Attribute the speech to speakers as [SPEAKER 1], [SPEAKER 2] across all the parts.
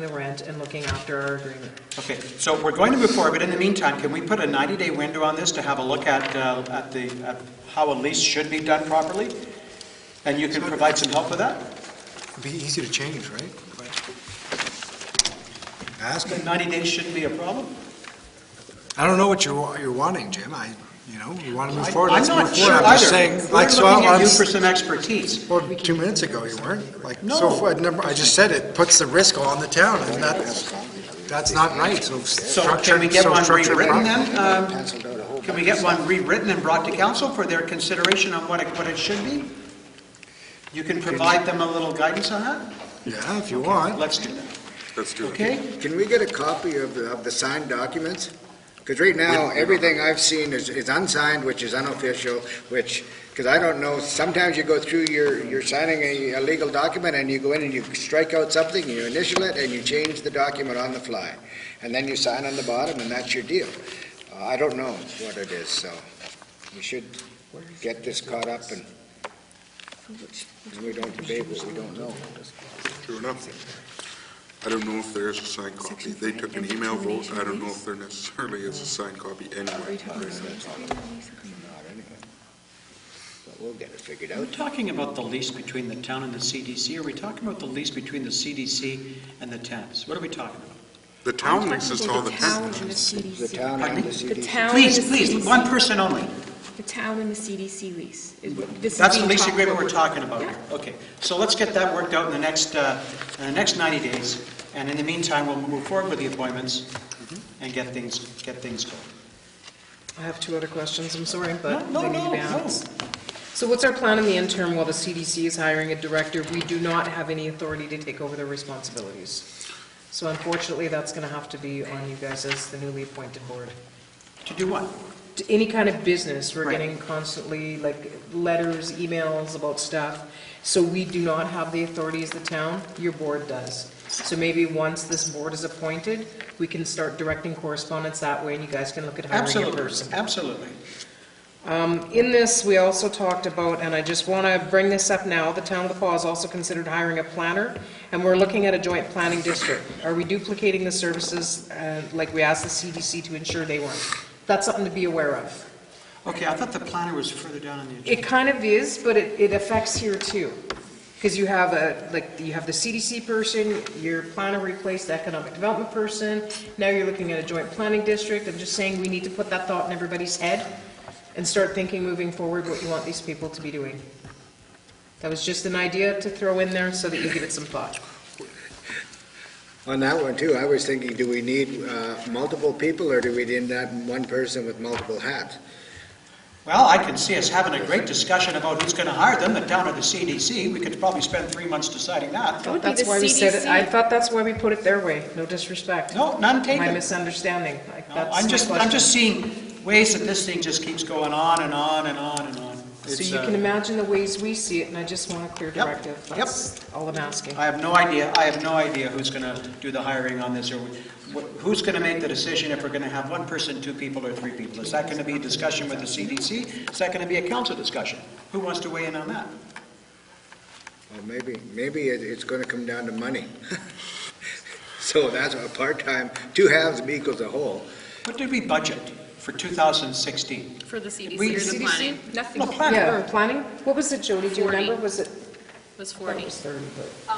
[SPEAKER 1] the rent and looking after our agreement.
[SPEAKER 2] Okay, so we're going to move forward, but in the meantime, can we put a 90-day window on this to have a look at, uh, at the, at how a lease should be done properly? And you can provide some help with that?
[SPEAKER 3] It'd be easy to change, right? Ask him.
[SPEAKER 2] 90 days shouldn't be a problem?
[SPEAKER 3] I don't know what you're, wa- you're wanting, Jim. I, you know, you want to move
[SPEAKER 2] I-
[SPEAKER 3] forward,
[SPEAKER 2] I'm
[SPEAKER 3] let's
[SPEAKER 2] not
[SPEAKER 3] move
[SPEAKER 2] sure
[SPEAKER 3] forward.
[SPEAKER 2] either.
[SPEAKER 3] I'm just saying, like, so
[SPEAKER 2] We're
[SPEAKER 3] I'm,
[SPEAKER 2] looking at you for
[SPEAKER 3] I'm-
[SPEAKER 2] some expertise.
[SPEAKER 3] well, two minutes ago you weren't. Like, so,
[SPEAKER 2] No.
[SPEAKER 3] far, number- I just said it puts the risk on the town, and that's, that's not right, so
[SPEAKER 2] So can we
[SPEAKER 3] structured,
[SPEAKER 2] get
[SPEAKER 3] so
[SPEAKER 2] one
[SPEAKER 3] structured.
[SPEAKER 2] rewritten
[SPEAKER 3] properly.
[SPEAKER 2] then? Um, Can we get one rewritten and brought to council for their consideration on what it, what it should be? You can provide them a little guidance on that?
[SPEAKER 3] Yeah, if you want.
[SPEAKER 2] Let's do that,
[SPEAKER 4] Let's do it.
[SPEAKER 2] okay?
[SPEAKER 5] Can we get a copy of the, of the signed documents? Because right now, everything I've seen is, is unsigned, which is unofficial, which, because I don't know, sometimes you go through your, you're signing a, a legal document and you go in and you strike out something, you initial it, and you change the document on the fly. And then you sign on the bottom, and that's your deal. Uh, I don't know what it is, so we should get this caught up and, and we don't debate what we don't know.
[SPEAKER 4] True enough. I don't know if there is a signed copy. They took an email vote. I don't know if there necessarily is a signed copy anyway.
[SPEAKER 5] Not anyway. But we'll get it figured
[SPEAKER 2] Are
[SPEAKER 5] out.
[SPEAKER 2] we talking about the lease between the town and the CDC? Are we talking about the lease between the CDC and the tenants? What are we talking about?
[SPEAKER 4] The town leases all the
[SPEAKER 6] town and the
[SPEAKER 4] time.
[SPEAKER 5] The
[SPEAKER 6] CDC.
[SPEAKER 5] town
[SPEAKER 2] Pardon
[SPEAKER 5] and
[SPEAKER 2] me?
[SPEAKER 5] the
[SPEAKER 6] The
[SPEAKER 5] CDC.
[SPEAKER 6] town and the
[SPEAKER 2] Please, please,
[SPEAKER 6] CDC.
[SPEAKER 2] one person only.
[SPEAKER 6] The town and the CDC lease. is what- this is
[SPEAKER 2] That's the
[SPEAKER 6] being
[SPEAKER 2] lease
[SPEAKER 6] talked
[SPEAKER 2] agreement
[SPEAKER 6] about.
[SPEAKER 2] we're talking about
[SPEAKER 6] Yeah.
[SPEAKER 2] here. Okay, so let's get that worked out in the next, uh, in the next 90 days, and in the meantime, we'll move forward with the appointments
[SPEAKER 6] Mm-hmm.
[SPEAKER 2] and get things, get things going.
[SPEAKER 1] I have two other questions, I'm sorry, but
[SPEAKER 2] No,
[SPEAKER 1] they
[SPEAKER 2] no,
[SPEAKER 1] need to
[SPEAKER 2] no,
[SPEAKER 1] be
[SPEAKER 2] no.
[SPEAKER 1] asked. So what's our plan in the interim while the CDC is hiring a director? We do not have any authority to take over their responsibilities. So unfortunately, that's going to have to be on you guys as the newly appointed board.
[SPEAKER 2] To do what?
[SPEAKER 1] To Any kind of business, we're
[SPEAKER 2] Right.
[SPEAKER 1] getting constantly like letters, emails about stuff. So we do not have the authority as the town, your board does. So maybe once this board is appointed, we can start directing correspondence that way and you guys can look at hiring a person.
[SPEAKER 2] Absolutely, absolutely.
[SPEAKER 1] In this, we also talked about, and I just want to bring this up now, the town of La Paws also considered hiring a planner, and we're looking at a joint planning district. Are we duplicating the services, uh, like we asked the CDC to ensure they weren't? That's something to be aware of.
[SPEAKER 2] Okay, I thought the planner was further down on the agenda.
[SPEAKER 1] It kind of is, but it, it affects here too. Because you have a, like, you have the CDC person, your planner replaced the economic development person, now you're looking at a joint planning district. I'm just saying, we need to put that thought in everybody's head and start thinking moving forward what you want these people to be doing. That was just an idea to throw in there so that you give it some thought.
[SPEAKER 5] On that one too, I was thinking, do we need uh, multiple people or do we need that one person with multiple hats?
[SPEAKER 2] Well, I can see us having a great discussion about who's going to hire them, the town or the CDC. We could probably spend three months deciding that.
[SPEAKER 6] That would be
[SPEAKER 1] That's
[SPEAKER 6] the
[SPEAKER 1] why we said it, I
[SPEAKER 6] CDC.
[SPEAKER 1] thought that's why we put it their way, no disrespect.
[SPEAKER 2] No, none taken.
[SPEAKER 1] My misunderstanding, like,
[SPEAKER 2] No,
[SPEAKER 1] that's
[SPEAKER 2] I'm
[SPEAKER 1] my
[SPEAKER 2] just, I'm
[SPEAKER 1] question.
[SPEAKER 2] just seeing ways that this thing just keeps going on and on and on and on.
[SPEAKER 1] So
[SPEAKER 2] It's,
[SPEAKER 1] you
[SPEAKER 2] uh,
[SPEAKER 1] can imagine the ways we see it, and I just want a clear
[SPEAKER 2] Yep,
[SPEAKER 1] directive.
[SPEAKER 2] yep.
[SPEAKER 1] That's all I'm asking.
[SPEAKER 2] I have no idea, I have no idea who's going to do the hiring on this, or wh- who's going to make the decision if we're going to have one person, two people, or three people? Is that going to be a discussion with the CDC? Is that going to be a council discussion? Who wants to weigh in on that?
[SPEAKER 5] Or maybe, maybe it- it's going to come down to money. So that's a part-time, two halves equals a whole.
[SPEAKER 2] What did we budget for 2016?
[SPEAKER 7] For the CDC
[SPEAKER 2] We-
[SPEAKER 7] or the
[SPEAKER 1] CDC?
[SPEAKER 7] planning?
[SPEAKER 2] No,
[SPEAKER 7] Nothing
[SPEAKER 2] planning.
[SPEAKER 1] Yeah, or planning? What was it, Jody? Do you
[SPEAKER 7] Forty.
[SPEAKER 1] remember? Was it?
[SPEAKER 7] was
[SPEAKER 1] I thought it
[SPEAKER 7] 40.
[SPEAKER 1] was 30, but-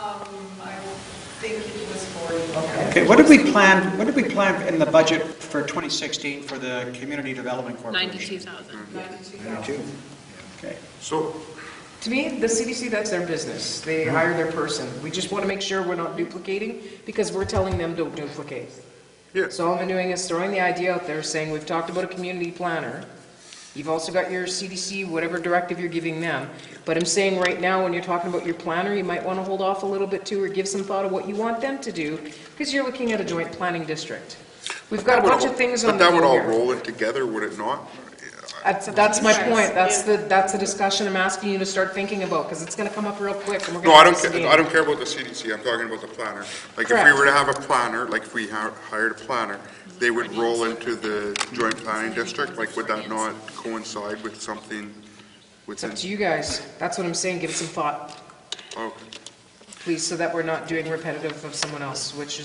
[SPEAKER 2] Okay, what did we plan, what did we plan in the budget for 2016 for the Community Development Corporation?
[SPEAKER 7] 92,000.
[SPEAKER 2] Okay.
[SPEAKER 4] So
[SPEAKER 1] To me, the CDC, that's their business. They
[SPEAKER 4] Mm-hmm.
[SPEAKER 1] hire their person. We just want to make sure we're not duplicating, because we're telling them don't duplicate.
[SPEAKER 4] Yeah.
[SPEAKER 1] So all I'm doing is throwing the idea out there, saying, we've talked about a community planner. You've also got your CDC, whatever directive you're giving them. But I'm saying right now, when you're talking about your planner, you might want to hold off a little bit too, or give some thought of what you want them to do, because you're looking at a joint planning district. We've got a bunch of things on the
[SPEAKER 4] But that would
[SPEAKER 1] go
[SPEAKER 4] all
[SPEAKER 1] here.
[SPEAKER 4] roll in together, would it not?
[SPEAKER 1] That's, that's my point, that's the, that's the discussion I'm asking you to start thinking about, because it's gonna come up real quick, and we're
[SPEAKER 4] No,
[SPEAKER 1] gonna
[SPEAKER 4] I don't,
[SPEAKER 1] miss the
[SPEAKER 4] ca-
[SPEAKER 1] game.
[SPEAKER 4] I don't care about the CDC, I'm talking about the planner. Like, if we
[SPEAKER 1] Correct.
[SPEAKER 4] were to have a planner, like if we hi- hired a planner, they would roll into the joint planning district, like, would that not coincide with something
[SPEAKER 1] It's up
[SPEAKER 4] within?
[SPEAKER 1] to you guys, that's what I'm saying, give it some thought,
[SPEAKER 4] Okay.
[SPEAKER 1] please, so that we're not doing repetitive of someone else, which is